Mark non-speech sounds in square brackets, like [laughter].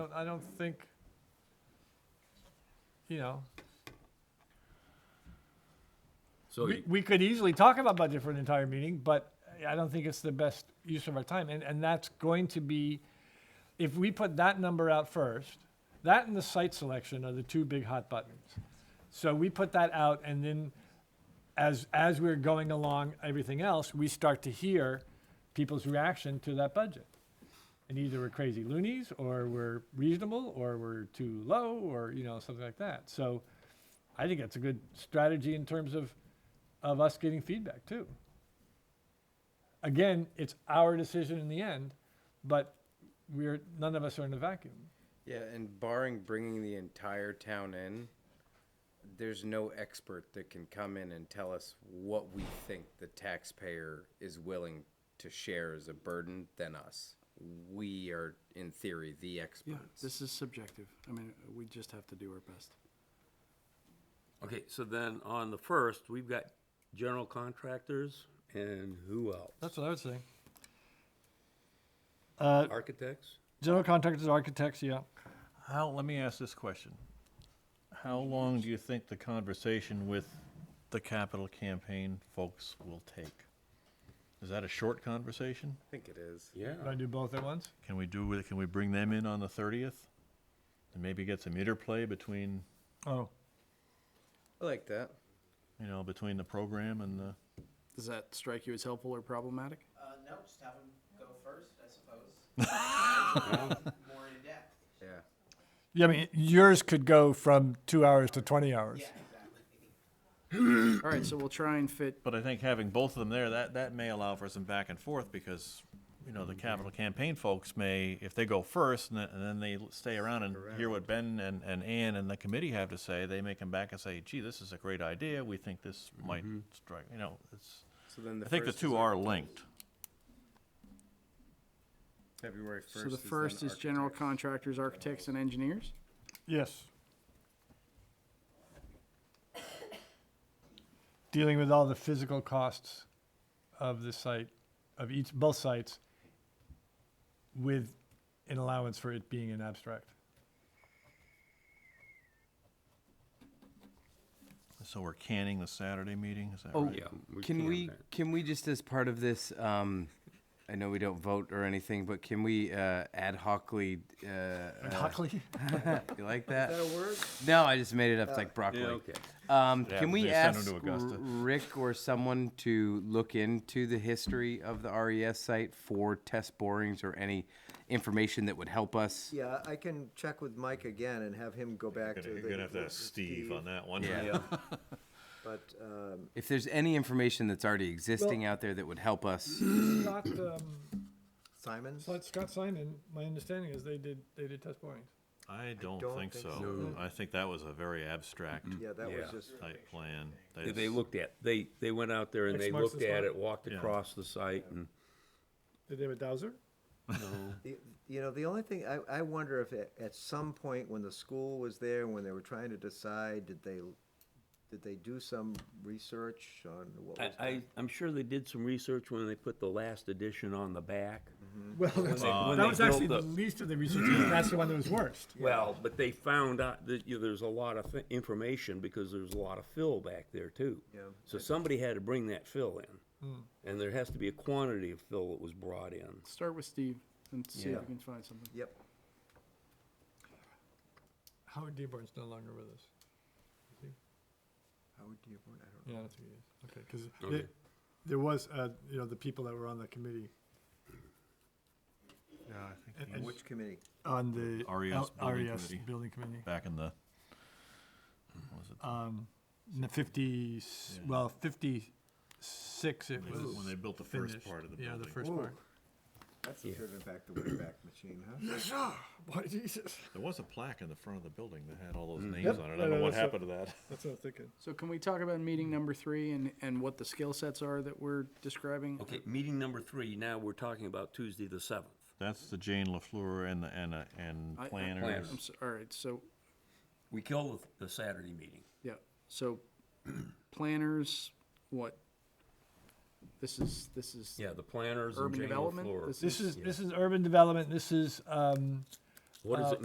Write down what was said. don't- I don't think, you know, So, we, we could easily talk about budget for an entire meeting, but I don't think it's the best use of our time. And, and that's going to be, if we put that number out first, that and the site selection are the two big hot buttons. So we put that out and then as, as we're going along everything else, we start to hear people's reaction to that budget. And either we're crazy loonies or we're reasonable or we're too low or, you know, something like that. So I think that's a good strategy in terms of of us getting feedback too. Again, it's our decision in the end, but we're none of us are in a vacuum. Yeah, and barring bringing the entire town in, there's no expert that can come in and tell us what we think the taxpayer is willing to share as a burden than us. We are, in theory, the Yeah, experts. this is subjective. I mean, we just have to do our best. okay, so then on the first, we've got general contractors and who else? That's what I would say. Architects? General contractors, architects, yeah. How, let me ask this question. How long do you think the conversation with the capital campaign folks will take? Is that a short conversation? I think it is. Yeah. Would I do both at once? Can we do, with- can we bring them in on the thirtieth? And maybe get some interplay between, Oh, I like that. you know, between the program and the, Does that strike you as helpful or problematic? Uh, no, just have them go first, I suppose. More in depth. Yeah. yeah. I mean, yours could go from two hours to twenty hours. Yeah, exactly. All right, so we'll try and fit, but I think having both of them there, that, that may allow for some back and forth because, you know, the Mm-hmm. capital campaign folks may, if they go first and then, and then they stay around and hear what Ben and, and Ann and the committee have to say, they may come back and say, gee, this is a great idea. We think this might strike, you know, it's, Mm-hmm. So then the I think the first is two are linked. February first. so the first is general contractors, architects, and engineers? Yes. Dealing with all the physical costs of the site, of each, both sites, with an allowance for it being an abstract. So we're canning the Saturday meeting, is that Oh, right? can we, can we just as part of this, um, I know we don't vote or anything, but can we, uh, ad hocly, uh, uh, Hockley? you like that? that a word? No, I just made it up. It's like broccoli. okay. Um, Yeah, can they we send 'em ask to Augusta. R- Rick or someone to look into the history of the RES site for test borings or any information that would help us? Yeah, I can check with Mike again and have him go back to the. You're gonna have to ask Steve on that one. Yeah. But, um, If there's any information that's already existing out there that would help us, Scott, um, Simons? Scott Simon, my understanding is they did, they did test borings. [laughs] I don't don't think think so. I think that was a very abstract Yeah, that was Yeah. just, Mm-hmm. type plan. They- They just- looked at, they, they went out there and Next they month's looked this at one? it, walked Yeah. across the site and, Did they have a dowser? the- you know, the only thing, I, I wonder if at, at some point when the school was there, when they were trying to decide, did they, did they do some research on what was? I, I, I'm sure they did some research when they put the last edition on the back. Mm-hmm. Well, that's- that when they was actually the built the- least of the research, 'cause that's the one that was worst. Well, but they found out that, you know, there's a lot of thi- information because there's a lot of fill back there too. Yeah. So somebody had to bring that fill in. And there has to be a quantity of fill that was brought in. Start with Steve and see if Yeah. we can find something. Yep, Howard Dearborn's no longer with us. Howard Dearborn, I don't know. Yeah, I don't think it is. Okay, because there was, uh, you know, the people that were on the committee, On Which committee? on the RES L- E building RES committee. building committee, Back in the, what was it? In the fifty, well, fifty-six it When they- was. when they built the first finished. part of the Yeah, the building. first part. That's the turning back the way back machine, huh? Why, [laughs] Jesus? There was a plaque in the front of the building that had all those names on it. I don't know what happened to Mm. that. That's what I'm thinking. So can we talk about meeting number three and, and what the skill sets are that we're describing? Okay, meeting number three, now we're talking about Tuesday the seventh. That's the Jane LaFleur and the, and, uh, and I- I- planners. I'm s- All right, so, We killed the Saturday meeting. yeah, so [clears throat] planners, what? This is, this is. Yeah, the planners and Urban Jane development? LaFleur. This This is, this is urban development, this is, um, uh, What does it